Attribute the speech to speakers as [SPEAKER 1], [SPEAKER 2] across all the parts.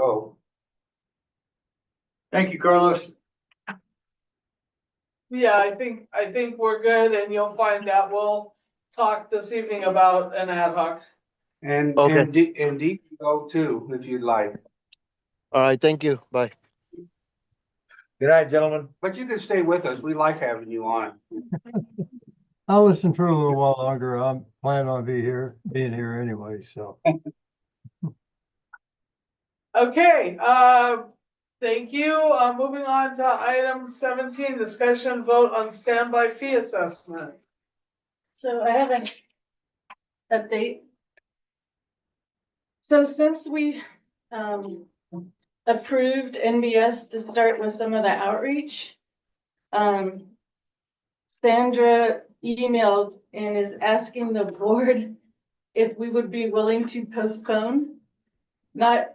[SPEAKER 1] go.
[SPEAKER 2] Thank you, Carlos.
[SPEAKER 3] Yeah, I think, I think we're good and you'll find out. We'll talk this evening about an ad hoc.
[SPEAKER 1] And,
[SPEAKER 4] Okay.
[SPEAKER 1] and Dee, and Dee can go too, if you'd like.
[SPEAKER 4] All right, thank you. Bye.
[SPEAKER 5] Good night, gentlemen.
[SPEAKER 1] But you can stay with us. We like having you on.
[SPEAKER 6] I'll listen for a little while longer. I'm planning on be here, being here anyway, so.
[SPEAKER 3] Okay, uh, thank you. Uh, moving on to item seventeen, discussion vote on standby fee assessment.
[SPEAKER 7] So I have an update. So since we um approved NBS to start with some of the outreach, um Sandra emailed and is asking the board if we would be willing to postpone. Not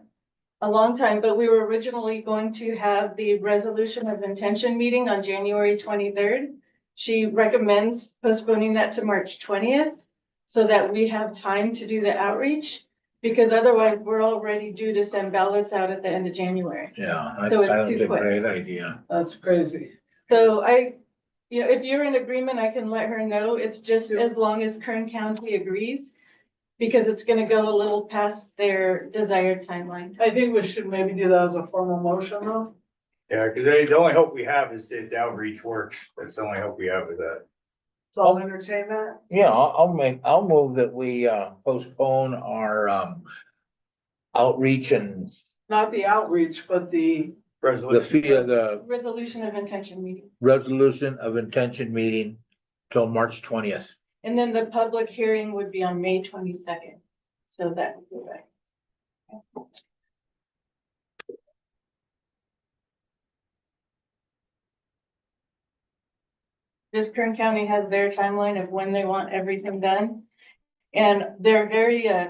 [SPEAKER 7] a long time, but we were originally going to have the resolution of intention meeting on January twenty-third. She recommends postponing that to March twentieth so that we have time to do the outreach. Because otherwise, we're already due to send ballots out at the end of January.
[SPEAKER 5] Yeah, I, I
[SPEAKER 7] So it's too
[SPEAKER 5] don't think
[SPEAKER 7] quick.
[SPEAKER 5] great idea.
[SPEAKER 3] That's crazy.
[SPEAKER 7] So I, you know, if you're in agreement, I can let her know. It's just as long as Kern County agrees. Because it's gonna go a little past their desired timeline.
[SPEAKER 3] I think we should maybe do that as a formal motion though.
[SPEAKER 2] Yeah, because the only hope we have is that the outreach works. That's the only hope we have with that.
[SPEAKER 3] So I'll entertain that.
[SPEAKER 5] Yeah, I'll, I'll make, I'll move that we, uh, postpone our, um, outreach and
[SPEAKER 3] Not the outreach, but the,
[SPEAKER 5] the fee of the
[SPEAKER 7] Resolution of intention meeting.
[SPEAKER 5] resolution of intention meeting till March twentieth.
[SPEAKER 7] And then the public hearing would be on May twenty-second. So that would be right. Just Kern County has their timeline of when they want everything done. And they're very, uh,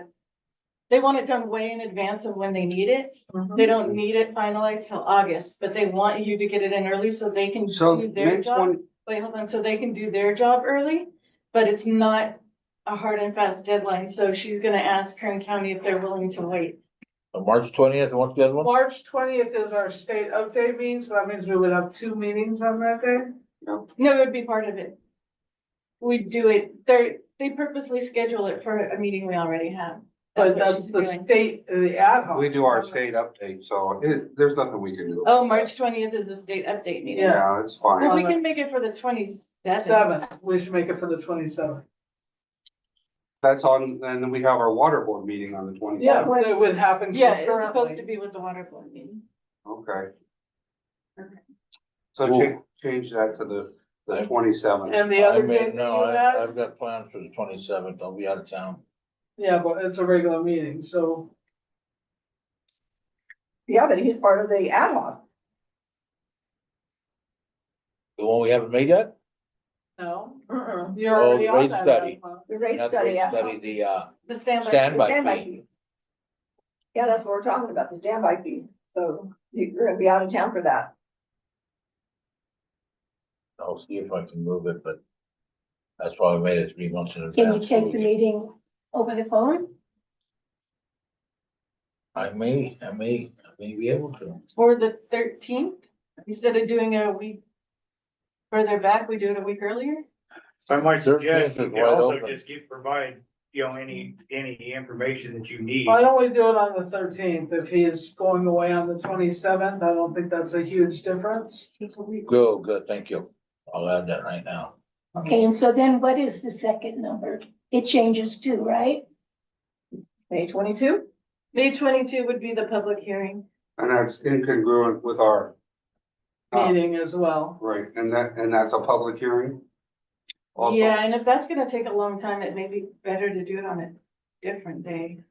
[SPEAKER 7] they want it done way in advance of when they need it.
[SPEAKER 3] Mm-hmm.
[SPEAKER 7] They don't need it finalized till August, but they want you to get it in early so they can
[SPEAKER 1] So
[SPEAKER 7] do their
[SPEAKER 1] next
[SPEAKER 7] job
[SPEAKER 1] one,
[SPEAKER 7] wait, hold on, so they can do their job early, but it's not a hard and fast deadline, so she's gonna ask Kern County if they're willing to wait.
[SPEAKER 5] Oh, March twentieth, what's the other one?
[SPEAKER 3] March twentieth is our state update meeting, so that means we would have two meetings on that day.
[SPEAKER 7] No, it would be part of it. We do it, they're, they purposely schedule it for a meeting we already have.
[SPEAKER 3] But
[SPEAKER 7] what
[SPEAKER 3] that's
[SPEAKER 7] she's
[SPEAKER 3] the
[SPEAKER 7] doing.
[SPEAKER 3] state, the ad hoc.
[SPEAKER 1] we do our state update, so it, there's nothing we can do.
[SPEAKER 7] Oh, March twentieth is a state update meeting.
[SPEAKER 3] Yeah.
[SPEAKER 1] Yeah, it's fine.
[SPEAKER 7] Well, we can make it for the twenty-seventh.
[SPEAKER 3] Seven, we should make it for the twenty-seventh.
[SPEAKER 1] That's on, and then we have our water board meeting on the twenty
[SPEAKER 3] Yeah,
[SPEAKER 1] seventh.
[SPEAKER 3] so it would happen.
[SPEAKER 7] Yeah, it's supposed to
[SPEAKER 3] concurrently.
[SPEAKER 7] be with the water board meeting.
[SPEAKER 1] Okay.
[SPEAKER 7] Okay.
[SPEAKER 1] So
[SPEAKER 5] Cool.
[SPEAKER 1] change, change that to the, the twenty seventh.
[SPEAKER 3] And the other
[SPEAKER 5] I may-
[SPEAKER 3] date that
[SPEAKER 5] No,
[SPEAKER 3] you
[SPEAKER 5] I,
[SPEAKER 3] had,
[SPEAKER 5] I've got plans for the twenty-seventh. I'll be out of town.
[SPEAKER 3] yeah, but it's a regular meeting, so.
[SPEAKER 8] Yeah, but he's part of the ad hoc.
[SPEAKER 5] The one we haven't made yet?
[SPEAKER 3] No, uh-uh, you're
[SPEAKER 5] Oh,
[SPEAKER 3] already on
[SPEAKER 5] rate
[SPEAKER 3] that.
[SPEAKER 5] study.
[SPEAKER 3] Dagmar.
[SPEAKER 8] the rate
[SPEAKER 5] Not the
[SPEAKER 8] study.
[SPEAKER 5] rate
[SPEAKER 8] ad hoc.
[SPEAKER 5] Study, the, uh,
[SPEAKER 7] The standby,
[SPEAKER 8] The
[SPEAKER 5] standby
[SPEAKER 8] standby
[SPEAKER 5] fee.
[SPEAKER 8] fee. Yeah, that's what we're talking about, the standby fee. So you- you're gonna be out of town for that.
[SPEAKER 5] I'll see if I can move it, but that's why we made it three months in advance.
[SPEAKER 9] Can you
[SPEAKER 5] so
[SPEAKER 9] take
[SPEAKER 5] we
[SPEAKER 9] the
[SPEAKER 5] can-
[SPEAKER 9] meeting over the phone?
[SPEAKER 5] I may, I may, I may be able to.
[SPEAKER 7] for the thirteenth, instead of doing a week further back, we do it a week earlier?
[SPEAKER 2] So I might suggest
[SPEAKER 5] Thirteenth
[SPEAKER 2] you
[SPEAKER 5] is
[SPEAKER 2] can
[SPEAKER 5] wide
[SPEAKER 2] also
[SPEAKER 5] open.
[SPEAKER 2] just give, provide, you know, any, any information that you need.
[SPEAKER 3] Why don't we do it on the thirteenth? If he is going away on the twenty-seventh, I don't think that's a huge difference.
[SPEAKER 5] Go, good, thank you. I'll add that right now.
[SPEAKER 9] Okay, and so then what is the second number? It changes too, right?
[SPEAKER 8] May twenty-two?
[SPEAKER 7] May twenty-two would be the public hearing.
[SPEAKER 1] And that's incongruent with our. uh,
[SPEAKER 3] Meeting as well.
[SPEAKER 1] Right, and that, and that's a public hearing? Also,
[SPEAKER 7] Yeah, and if that's gonna take a long time, it may be better to do it on a different day.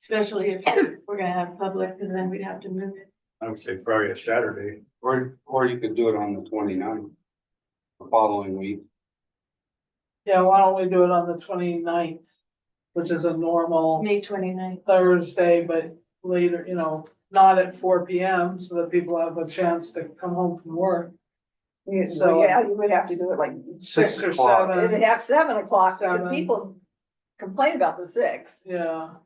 [SPEAKER 7] Especially if we're gonna have public, because then we'd have to move it.
[SPEAKER 2] I would say probably a Saturday.
[SPEAKER 1] Or, or you could do it on the 29th, the following week.
[SPEAKER 3] Yeah, why don't we do it on the 29th, which is a normal
[SPEAKER 7] May 29th.
[SPEAKER 3] Thursday, but later, you know, not at four P M, so that people have a chance to come home from work.
[SPEAKER 8] You-
[SPEAKER 3] So-
[SPEAKER 8] well, Yeah, you would have to do it like,
[SPEAKER 3] Six or
[SPEAKER 1] o'clock.
[SPEAKER 8] it'd
[SPEAKER 3] seven,
[SPEAKER 8] have seven o'clock, because
[SPEAKER 3] Seven.
[SPEAKER 8] people complain about the six.
[SPEAKER 3] yeah,